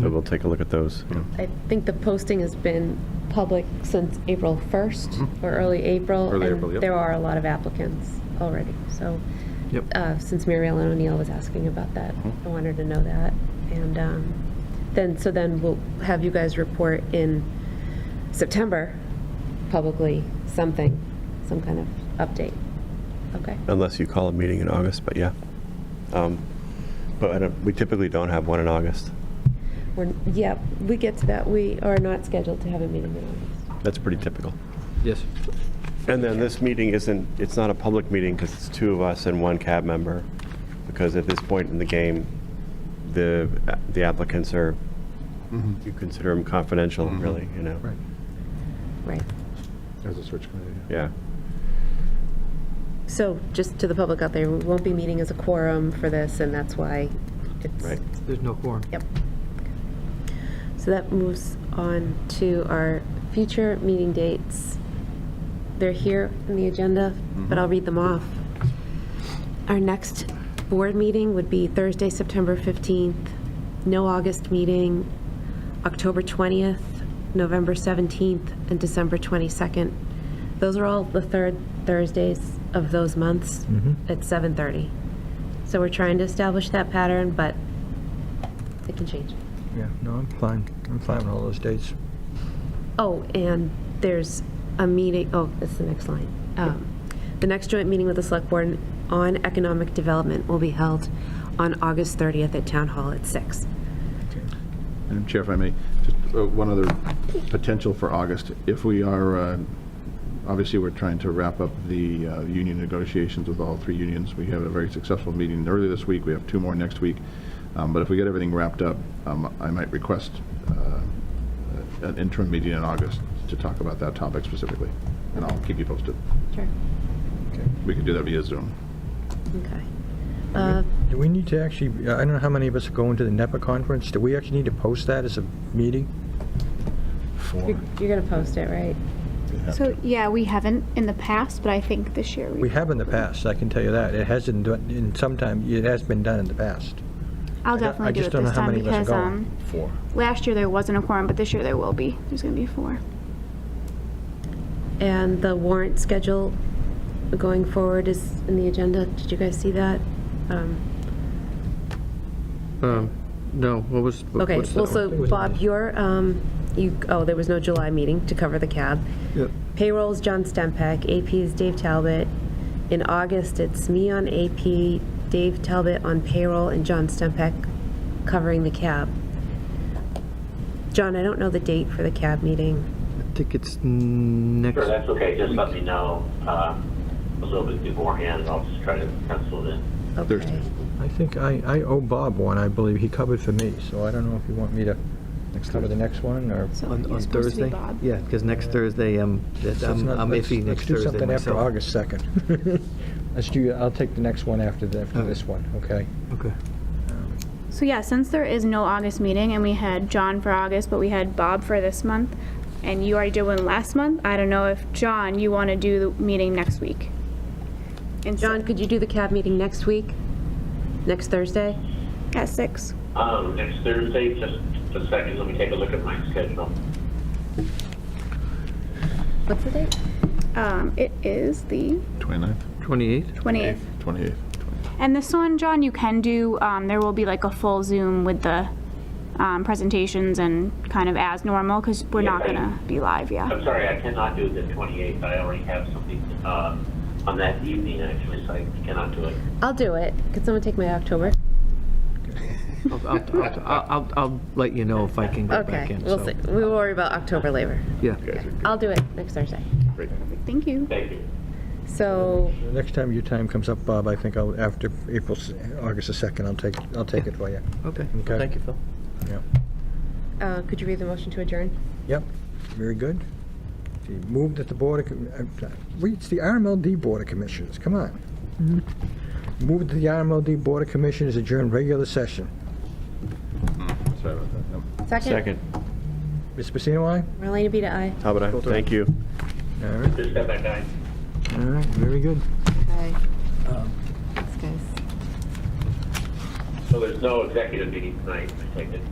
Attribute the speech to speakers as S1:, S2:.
S1: So we'll take a look at those. yeah.
S2: I think the posting has been public since April 1st or early April.
S1: Mm-hmm. Early
S2: and
S1: April, yep.
S2: There are a lot of applicants already, so.
S1: Yep. Mm-hmm.
S2: uh, Since Mary Ellen O'Neill was asking about that, I wanted to know that. And um, then, so then we'll have you guys report in September publicly, something, some kind of update. Okay?
S1: Unless you call a meeting in August, but yeah. Um, But I don't- we typically don't have one in August.
S2: We're, yeah, we get to that. We are not scheduled to have a meeting in August.
S1: That's pretty typical.
S3: Yes.
S1: And then this meeting isn't, it's not a public meeting because it's two of us and one cab member. Because at this point in the game, the, the applicants are, you consider them confidential, really, you know?
S3: Mm-hmm. Right.
S2: Right.
S4: As a search committee, yeah.
S1: Yeah.
S2: So just to the public out there, we won't be meeting as a quorum for this, and that's why it's.
S1: Right.
S3: There's no quorum.
S2: Yep. So that moves on to our future meeting dates. They're here in the agenda, but I'll read them off. Our next board meeting would be Thursday, September 15th, no August meeting, October 20th, November 17th, and December 22nd. Those are all the third Thursdays of those months at 7:30. So we're trying to establish that pattern, but it can change.
S3: Yeah, no, I'm fine. I'm fine with all those dates.
S2: Oh, and there's a meeting, oh, that's the next line. Um, The next joint meeting with the Select Board on Economic Development will be held on August 30th at Town Hall at six.
S4: Madam Chair, if I may, just uh, one other potential for August. If we are, uh, obviously, we're trying to wrap up the uh, union negotiations with all three unions. We have a very successful meeting early this week. We have two more next week. Um, But if we get everything wrapped up, um, I might request uh, an interim meeting in August to talk about that topic specifically. And I'll keep you posted.
S2: Sure.
S4: We can do that via Zoom.
S2: Okay. Uh,
S3: Do we need to actually, I don't know how many of us are going to the NEPA conference. Do we actually need to post that as a meeting?
S2: You're you're gonna post it, right?
S5: So, yeah, we haven't in the past, but I think this year
S3: We
S5: we,
S3: have in the past, I can tell you that. It hasn't done, in some time, it has been done in the past.
S5: I'll
S3: I don't- I
S5: definitely do
S3: just
S5: it
S3: don't know
S5: this
S3: how
S5: time
S3: many of us are
S5: because,
S3: going.
S5: um,
S4: Four.
S5: last year there wasn't a quorum, but this year there will be. There's gonna be four.
S2: And the warrant schedule going forward is in the agenda. Did you guys see that? Um,
S6: Um, No, what was? what-
S2: Okay,
S6: what's the-
S2: well, so Bob, your, um, you, oh, there was no July meeting to cover the cab.
S6: Yep.
S2: Payroll is John Stempak, AP is Dave Talbot. In August, it's me on AP, Dave Talbot on payroll, and John Stempak covering the cab. John, I don't know the date for the cab meeting.
S6: I think it's next,
S7: Sure, that's okay, just let me know, uh, a little bit beforehand, I'll just try to pencil it in.
S2: Okay.
S4: Thursday.
S3: I think I, I owe Bob one, I believe. He covered for me, so I don't know if you want me to cover the next one or.
S5: So
S6: on
S5: you're
S6: on
S5: supposed to be
S6: Thursday?
S5: Bob.
S6: Yeah, because next Thursday, um, that-
S3: Let's
S6: I'm
S3: not-
S6: I'm
S3: let's-
S6: iffy
S3: let's
S6: next
S3: do
S6: Thursday
S3: something after
S6: myself.
S3: August 2nd. Let's do, I'll take the next one after, the- after
S6: Okay.
S3: this one, okay?
S6: Okay.
S5: So, yeah, since there is no August meeting and we had John for August, but we had Bob for this month, and you already did one last month, I don't know if, John, you wanna do the meeting next week? And
S2: John, could you do the cab meeting next week? Next Thursday?
S5: At six.
S7: Um, next Thursday, just a second, let me take a look at my schedule.
S2: What's the date?
S5: Um, it is the
S4: 29th?
S6: 28?
S5: 28th.
S4: 28th.
S5: And this one, John, you can do, um, there will be like a full Zoom with the um, presentations and kind of as normal because we're not
S7: Yeah.
S5: going to be live, yeah.
S7: I'm sorry, I cannot do the 28th, I already have something, uh, on that evening, actually, so I cannot do it.
S2: I'll do it. Could someone take my October?
S6: I'll, I'll- I'll- I'll, I'll let you know if I can go back
S2: Okay,
S6: in,
S2: we'll
S6: so-
S2: see. We will worry about October later.
S6: Yeah.
S2: I'll do it next Thursday.
S5: Thank you.
S7: Thank you.
S2: So,
S3: The next time your time comes up, Bob, I think I'll, after April, s- August the 2nd, I'll take, I'll take it for you.
S6: Okay,
S3: Okay.
S6: thank you, Phil.
S3: Yeah.
S2: uh, could you read the motion to adjourn?
S3: Yep, very good. See, Move that the Board of, Com- uh, we- it's the RMLD Board of Commissioners, come on. Move that the RMLD Board of Commissioners adjourn regular session.
S4: Sorry about that. Yep.
S1: Second.
S3: Ms. Pacino, aye?
S2: Marlena Bita, aye.
S1: How about I? Thank you.
S3: All right,
S7: Just step back, guys.
S3: all right, very good.
S2: Okay. Thanks, guys.
S7: So there's no executive meeting tonight, I take it?